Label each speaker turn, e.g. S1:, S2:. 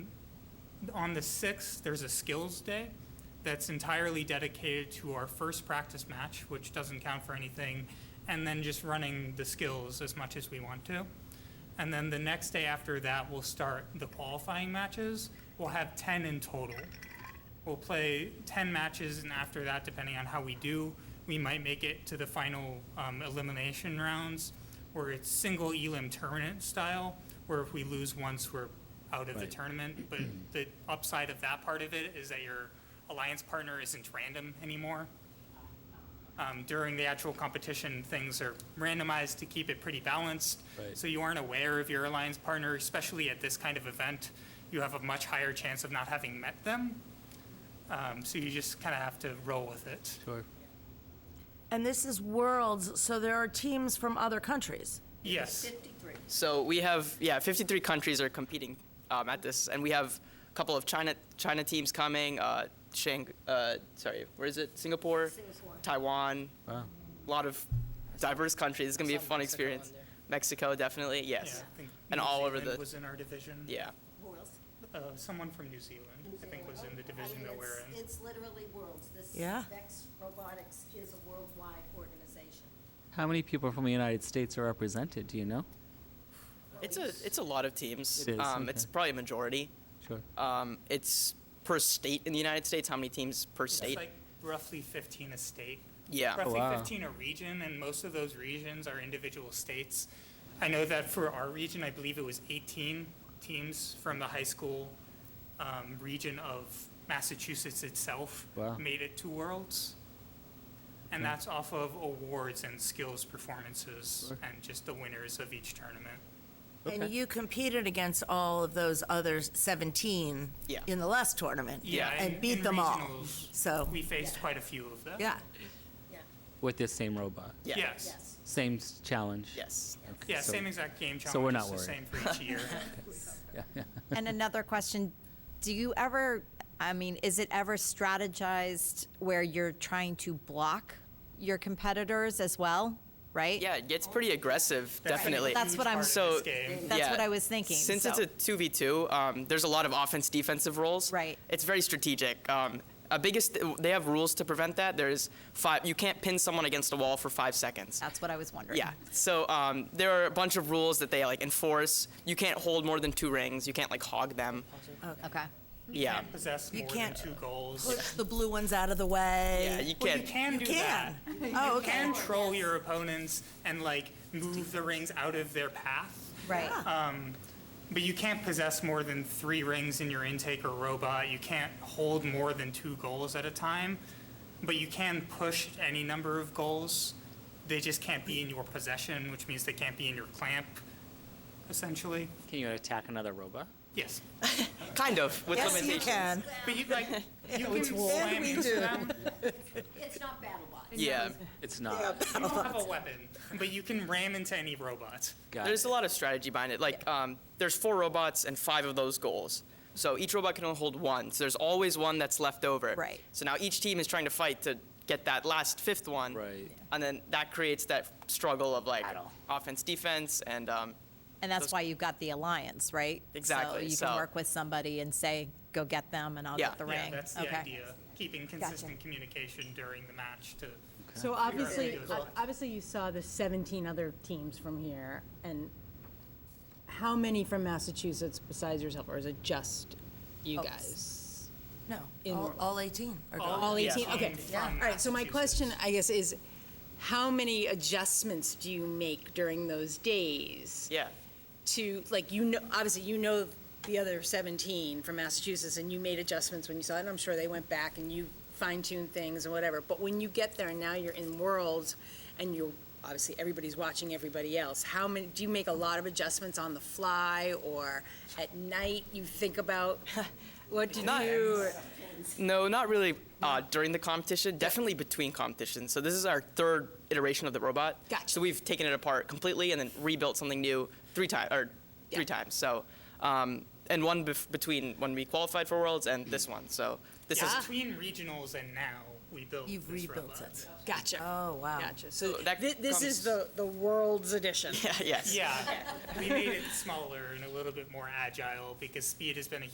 S1: on the 6th, there's a skills day that's entirely dedicated to our first practice match, which doesn't count for anything, and then just running the skills as much as we want to. And then the next day after that, we'll start the qualifying matches. We'll have 10 in total. We'll play 10 matches, and after that, depending on how we do, we might make it to the final um, elimination rounds, where it's single elim tournament style, where if we lose once, we're out of the
S2: Right. Hmm.
S1: tournament. But the upside of that part of it is that your alliance partner isn't random anymore. Um, during the actual competition, things are randomized to keep it pretty balanced.
S2: Right.
S1: So you aren't aware of your alliance partner, especially at this kind of event. You have a much higher chance of not having met them. Um, so you just kind of have to roll with it.
S2: Sure.
S3: And this is worlds, so there are teams from other countries.
S1: Yes.
S4: 53.
S5: So we have yeah, 53 countries are competing um, at this, and we have a couple of China China teams coming. Uh, Shang, uh, sorry, where is it? Singapore,
S4: Singapore.
S5: Taiwan.
S2: Wow.
S5: A lot of diverse countries. It's gonna be a
S4: Saw
S5: fun
S4: Mexico on
S5: experience.
S4: there.
S5: Mexico, definitely, yes.
S1: Yeah, I think
S5: And
S1: New
S5: all over
S1: Zealand
S5: the-
S1: Was in our division.
S5: Yeah.
S4: Who else?
S1: Uh, someone from New Zealand, I think, was in the division that we're in.
S4: It's literally worlds. This
S3: Yeah.
S4: Vex Robotics is a worldwide organization.
S2: How many people from the United States are represented? Do you know?
S5: It's a it's a lot of teams.
S2: It is,
S5: um, It's
S2: okay.
S5: probably a majority.
S2: Sure.
S5: Um, it's per state in the United States. How many teams per
S1: It's
S5: state?
S1: like roughly 15 a state.
S5: yeah.
S1: Roughly
S2: Oh, wow.
S1: 15 a region, and most of those regions are individual states. I know that for our region, I believe it was 18 teams from the high school um, region of Massachusetts itself
S2: Wow.
S1: made it to Worlds. And that's off of awards and skills performances
S2: Sure.
S1: and just the winners of each tournament.
S3: And you competed against all of those other 17
S5: Yeah.
S3: in the last tournament.
S1: Yeah,
S3: And
S1: in-
S3: beat
S1: in
S3: them all.
S1: regionals,
S3: So,
S1: We faced quite a few of them.
S3: yeah.
S4: Yeah,
S2: With this same robot.
S5: Yeah.
S1: Yes.
S4: yes.
S2: Same s- challenge.
S5: Yes.
S2: Okay,
S1: Yeah,
S2: so-
S1: same exact game challenge.
S2: so we're
S1: it's
S2: not
S1: the
S2: worried.
S1: Same for each year.
S6: And another question, do you ever, I mean, is it ever strategized where you're trying to block your competitors as well, right?
S5: Yeah. It gets pretty aggressive. Definitely.
S6: That's what I'm-
S1: so.
S5: So-
S6: That's what I was thinking,
S5: Since it's
S6: so-
S5: a two v two, um, there's a lot of offense defensive roles.
S6: Right.
S5: It's very strategic. Um, a biggest they have rules to prevent that. There's five. You can't pin someone against a wall for five seconds.
S6: That's what I was wondering.
S5: Yeah. So um, there are a bunch of rules that they like enforce. You can't hold more than two rings. You can't like hog them.
S6: Okay.
S5: Yeah.
S1: Possess
S3: You
S1: more than
S3: can't-
S1: two goals.
S3: Push the blue ones out of the way.
S5: Yeah. You
S1: Well,
S5: can't.
S1: you can do that.
S3: can. Oh,
S1: You can
S3: okay.
S1: troll your opponents and like move the rings out of their path,
S6: Right.
S1: but you can't possess more than three rings in your intake or robot. You can't hold more than two goals at a time, but you can push any number of goals. They just can't be in your possession, which means they can't be in your clamp, essentially.
S2: Can you attack another robot?
S1: Yes.
S5: Kind of. With
S3: Yes, you
S5: limitations.
S3: can.
S1: But you like you can slam into them.
S4: It's not BattleBots.
S5: Yeah.
S2: It's not.
S1: You don't have a weapon, but you can ram into any robot.
S2: Got
S5: There's
S2: it.
S5: a lot of strategy behind it. Like, um, there's four robots and five of those goals. So each robot can only hold one. So there's always one that's left over.
S6: Right.
S5: So now each team is trying to fight to get that last fifth one.
S2: Right. Yeah.
S5: And then that creates that struggle of like
S2: Battle.
S5: offense, defense, and um,
S6: And that's why you've got the alliance, right?
S5: Exactly,
S6: So you
S5: so-
S6: can work with somebody and say, go get them and I'll
S5: Yeah.
S6: get the
S1: Yeah,
S6: ring.
S1: that's the
S6: Okay.
S1: idea. Keeping consistent communication during the match to.
S7: So obviously,
S1: Very good.
S7: obviously you saw the 17 other teams from here, and how many from Massachusetts besides yourself, or is it just you
S6: Oh,
S7: guys?
S3: No,
S7: In
S3: all,
S7: world.
S3: all 18 are gone.
S7: All 18,
S1: Yeah.
S7: okay.
S1: Yeah.
S7: All right, so my question, I guess, is how many adjustments do you make during those days?
S5: yeah.
S7: to, like, you know, obviously, you know the other 17 from Massachusetts, and you made adjustments when you saw it, and I'm sure they went back and you fine-tuned things and whatever, but when you get there and now you're in worlds, and you're, obviously, everybody's watching everybody else, how many, do you make a lot of adjustments on the fly, or at night, you think about, what to
S5: Not-
S7: do?
S5: No, not really uh, during the competition. Definitely between competitions. So this is our third iteration of the robot.
S7: Gotcha.
S5: So we've taken it apart completely and then rebuilt something new three times or three times. So um, and one bef- between when we qualified for Worlds and this one. So this is
S1: Between regionals and now, we built
S3: ah. You've
S1: this
S3: rebuilt
S1: robot.
S3: it.
S7: Gotcha.
S3: Oh, wow.
S7: Gotcha. So
S5: So that
S7: thi- this
S5: comes-
S7: is the, the world's edition.
S5: yes.
S1: Yeah, we made it smaller and a little bit more agile because speed has been a